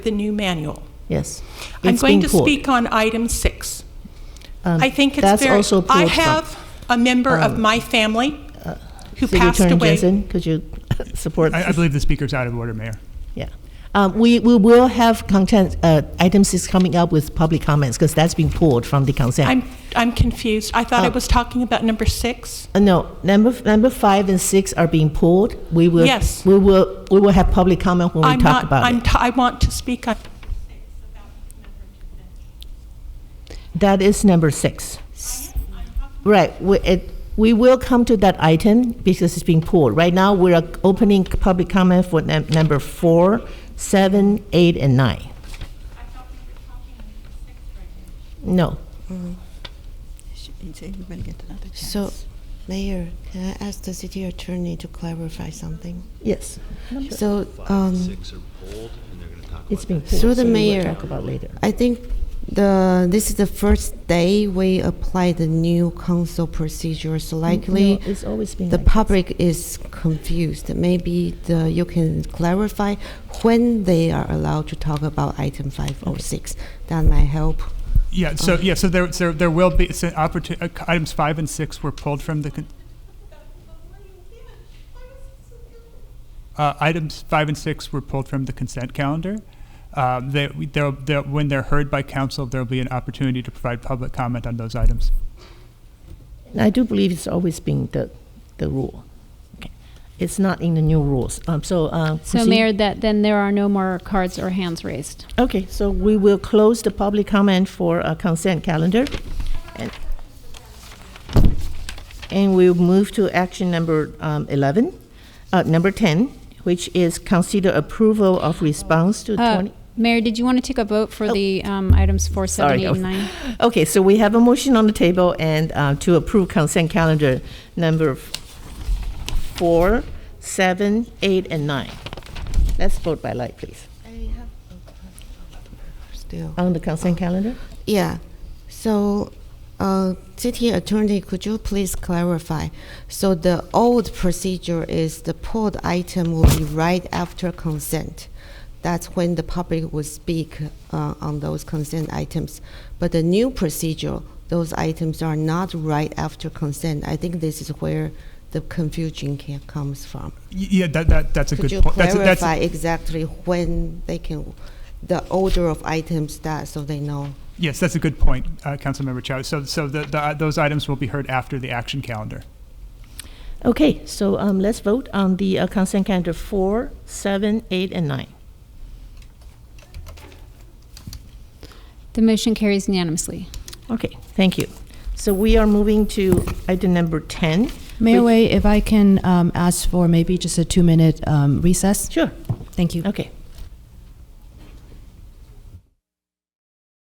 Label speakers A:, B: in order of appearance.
A: the new manual.
B: Yes.
A: I'm
B: It's
A: going to
B: been pulled.
A: speak on item six.
B: Um,
A: I think it's
B: that's
A: very,
B: also
A: I
B: pulled from- um, uh,
A: have a member of my family who
B: City
A: passed
B: Attorney
A: away.
B: Jensen, could you support?
C: I, I believe the speaker's out of order, Mayor.
B: Yeah. Um, we, we will have content, uh, item six coming up with public comments because that's been pulled from the consent.
A: I'm, I'm confused. I thought I
B: Oh.
A: was talking about number six.
B: Uh, No, number, number five and six are being pulled. We will.
A: Yes.
B: We will, we will have public comment when
A: I'm
B: we talk
A: not,
B: about
A: I'm,
B: it.
A: t- I want to speak on,
B: That is number six. Right, we, it, we will come to that item because it's being pulled. Right now, we are opening public comment for num- number four, seven, eight, and nine. No,
D: Everybody get another chance.
E: So, Mayor, can I ask the city attorney to clarify something?
B: yes,
E: So,
F: Five and
E: um,
F: six are pulled, and they're going to talk about
B: it's being pulled.
E: Through the
B: so we will
E: mayor.
B: Talk about later.
E: I think the, this is the first day we apply the new council procedure, so likely
B: Mm-hmm. No, it's always been
E: the
B: like that.
E: public is confused. Maybe the, you can clarify when they are allowed to talk about item five or six. That might help.
C: Yeah, so, yeah, so there, so there will be, so opportu- uh, items five and six were pulled from the, con- uh, items five and six were pulled from the consent calendar. Um, they, we- they'll, they'll, when they're heard by council, there'll be an opportunity to provide public comment on those items.
B: I do believe it's always been the, the rule. Okay. It's not in the new rules. Um, so, uh,
G: So,
B: proceed.
G: Mayor, that then there are no more cards or hands raised.
B: Okay, so we will close the public comment for a consent calendar. and- And we'll move to action number um, 11, uh, number 10, which is consider approval of response to
G: Uh,
B: 20.
G: Mayor, did you want to take a vote for
B: Oh.
G: the um, items four, seven,
B: Sorry,
G: eight,
B: I was-
G: and nine?
B: Okay, so we have a motion on the table and uh, to approve consent calendar number f- 4, 7, 8, and 9. Let's vote by light, please.
E: Still.
B: On the consent calendar?
E: Yeah. So, uh, city attorney, could you please clarify? So the old procedure is the pulled item will be right after consent. That's when the public will speak uh, on those consent items. But the new procedure, those items are not right after consent. I think this is where the confusion ca comes from.
C: Y- Yeah, that, that, that's a
E: Could
C: good
E: you
C: point. That's a- that's a-
E: clarify exactly when they can, the order of items that, so they know?
C: Yes, that's a good point, uh, Councilmember Chow. So, so the, the, those items will be heard after the action calendar.
B: Okay, so um, let's vote on the uh, consent calendar four, seven, eight, and nine.
G: The motion carries unanimously.
B: Okay, thank you. So we are moving to item number 10.
H: Mayor Way, if I can um, ask for maybe just a two-minute um, recess?
B: Sure,
H: Thank you.
B: okay.